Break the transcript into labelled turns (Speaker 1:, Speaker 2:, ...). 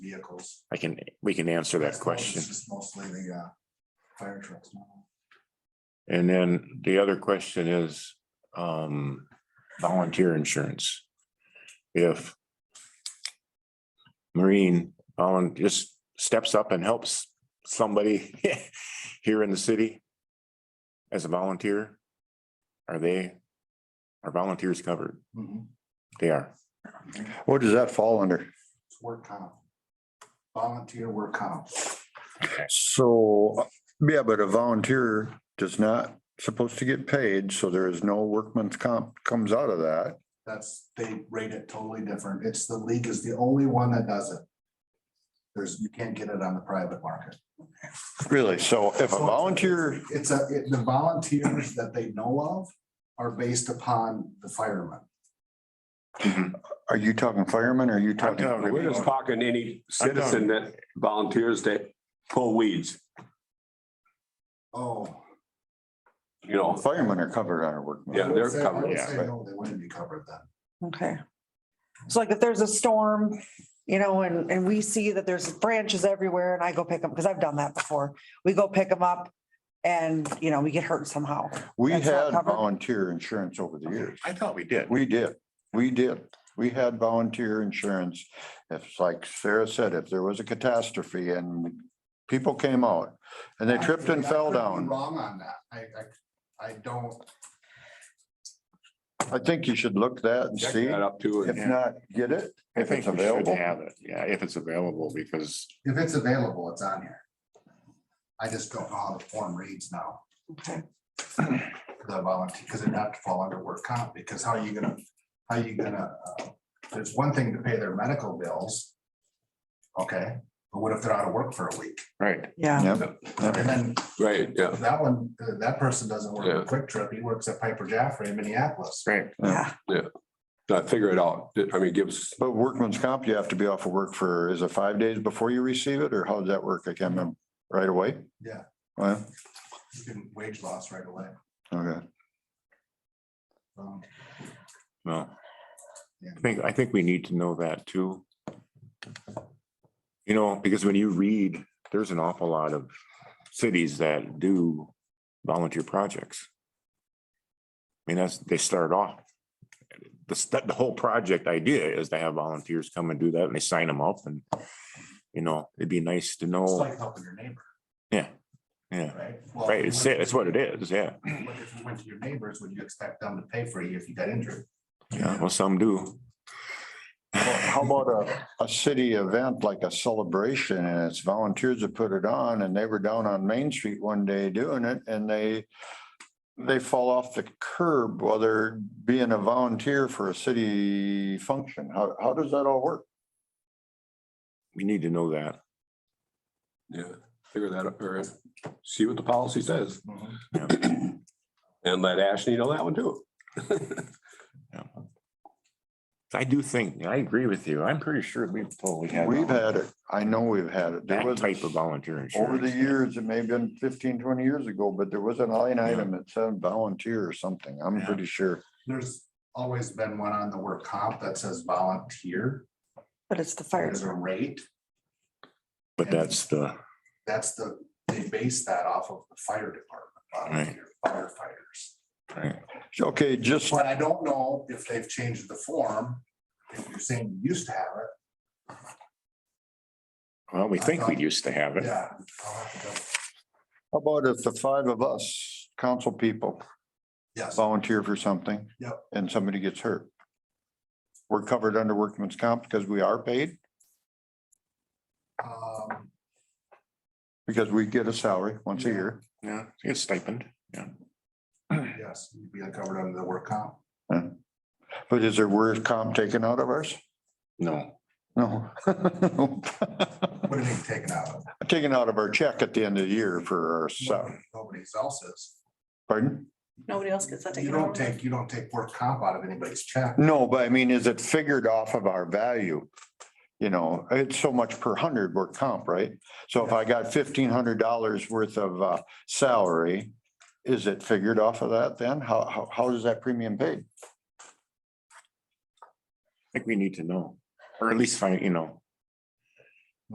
Speaker 1: vehicles.
Speaker 2: I can, we can answer that
Speaker 1: That's all, it's
Speaker 2: question.
Speaker 1: just Mostly the uh, fire trucks now.
Speaker 2: And then the other question is um volunteer insurance. If Marine volun just steps up and helps somebody here in the city as a volunteer, are they, are volunteers covered?
Speaker 1: Mhm.
Speaker 2: They are.
Speaker 3: What does that fall under?
Speaker 1: It's Work comp. Volunteer work comp.
Speaker 3: So, uh, yeah, but a volunteer does not supposed to get paid, so there is no workman's comp comes out of that.
Speaker 1: That's, they rate it totally different. It's the league is the only one that does it. There's, you can't get it on the private market.
Speaker 3: Really? So if a volunteer,
Speaker 1: It's a, it- the volunteers that they know of are based upon the firemen.
Speaker 3: are you talking firemen? or Are you
Speaker 2: I'm
Speaker 3: talking?
Speaker 2: talking-
Speaker 4: We're just talking any citizen that volunteers to pull weeds,
Speaker 1: Oh.
Speaker 4: you know,
Speaker 3: Firemen are covered under workman's.
Speaker 4: Yeah, they're
Speaker 1: I would say- I
Speaker 4: covered,
Speaker 1: would
Speaker 2: yeah,
Speaker 1: say
Speaker 3: but-
Speaker 1: No, they wouldn't be covered then.
Speaker 5: Okay. It's like if there's a storm, you know, and, and we see that there's branches everywhere and I go pick them, because I've done that before. We go pick them up and, you know, we get hurt somehow.
Speaker 3: We
Speaker 5: That's not
Speaker 3: had
Speaker 5: covered?
Speaker 3: volunteer insurance over the years.
Speaker 2: I thought we did.
Speaker 3: We did, we did. We had volunteer insurance. If, like Sarah said, if there was a catastrophe and people came out and they tripped and
Speaker 1: I
Speaker 3: fell
Speaker 1: could be
Speaker 3: down.
Speaker 1: Wrong on that. I, I, I don't,
Speaker 3: I think you should look that and
Speaker 4: check
Speaker 3: see,
Speaker 4: that up too.
Speaker 3: if
Speaker 4: and-
Speaker 3: not, get it,
Speaker 2: I
Speaker 3: if
Speaker 2: think
Speaker 3: it's
Speaker 2: we should
Speaker 3: available.
Speaker 2: have it. Yeah, if it's available, because
Speaker 1: if it's available, it's on here. I just don't know how the form reads now.
Speaker 5: Okay.
Speaker 1: the volunteer, because it'd have to fall under work comp, because how are you gonna, how are you gonna, uh, there's one thing to pay their medical bills. Okay, but what if they're out of work for a week?
Speaker 2: right,
Speaker 5: Yeah.
Speaker 3: Yep.
Speaker 1: And then
Speaker 4: Right, yeah.
Speaker 1: that one, uh, that person doesn't work
Speaker 4: Yeah.
Speaker 1: at Quick Trip, he works at Piper Jaffrey in Minneapolis.
Speaker 2: right.
Speaker 5: Yeah.
Speaker 4: Uh, Figure it out. I mean, give us,
Speaker 3: But workman's comp, you have to be off of work for, is it five days before you receive it, or how does that work? I can't remember, right away?
Speaker 1: Yeah.
Speaker 3: Well,
Speaker 1: You can wage loss right away.
Speaker 3: okay,
Speaker 1: Um,
Speaker 2: No.
Speaker 1: Yeah.
Speaker 2: I think, I think we need to know that too. You know, because when you read, there's an awful lot of cities that do volunteer projects. I mean, that's, they start off. The stu- the whole project idea is to have volunteers come and do that and they sign them up and, you know, it'd be nice to
Speaker 1: It's
Speaker 2: know,
Speaker 1: like helping your neighbor,
Speaker 2: Oh. yeah, yeah,
Speaker 1: right? Well,
Speaker 2: right,
Speaker 1: if you
Speaker 2: it's
Speaker 1: went
Speaker 2: it, that's what it is, yeah,
Speaker 1: to- But if you went to your neighbors, would you expect them to pay for you if you got injured?
Speaker 2: yeah, well, some do.
Speaker 3: Well, how about a, a city event like a celebration, and it's volunteers that put it on, and they were down on Main Street one day doing it, and they they fall off the curb while they're being a volunteer for a city function, how, how does that all work?
Speaker 2: We need to know that.
Speaker 4: yeah, figure that out or see what the policy says and let Ashley know that one too.
Speaker 2: I do think, I agree with you. I'm pretty sure we've totally had.
Speaker 3: We've had it, I know we've had it. There
Speaker 2: That
Speaker 3: was-
Speaker 2: type of volunteer
Speaker 3: Over the
Speaker 2: insurance.
Speaker 3: years, it may have been 15, 20 years ago, but there was an line item that said volunteer or something. I'm
Speaker 2: Yeah.
Speaker 3: pretty sure.
Speaker 1: There's always been one on the work comp that says volunteer.
Speaker 5: But it's the fire.
Speaker 1: There's a rate.
Speaker 2: But that's the,
Speaker 1: That's the, they base that off of the fire department, volunteer firefighters.
Speaker 3: Okay, just,
Speaker 1: But I don't know if they've changed the form. If you're saying you used to have it,
Speaker 2: well, we think we used to have it.
Speaker 1: yeah. I'll have to go-
Speaker 3: how about if the five of us, council people,
Speaker 1: Yes,
Speaker 3: volunteer for something?
Speaker 1: Yep.
Speaker 3: And somebody gets hurt? We're covered under workman's comp because we are paid,
Speaker 1: um,
Speaker 3: because we get a salary once a
Speaker 1: Yeah.
Speaker 3: year.
Speaker 2: Yeah, it's stipend.
Speaker 1: yes, you'd be covered under the work comp.
Speaker 3: But is there work comp taken out of ours?
Speaker 2: No.
Speaker 3: No.
Speaker 1: What are they taking out of?
Speaker 3: Taken out of our check at the end of the year for our, sal-
Speaker 1: Nobody else's.
Speaker 3: pardon?
Speaker 6: Nobody else gets that
Speaker 1: You
Speaker 6: taken
Speaker 1: don't
Speaker 6: out.
Speaker 1: take, you don't take work comp out of anybody's check.
Speaker 3: No, but I mean, is it figured off of our value? You know, it's so much per hundred work comp, right? So if I got fifteen hundred dollars worth of uh, salary, is it figured off of that then? How, how, how is that premium paid?
Speaker 2: I think we need to know, or at least find, you know,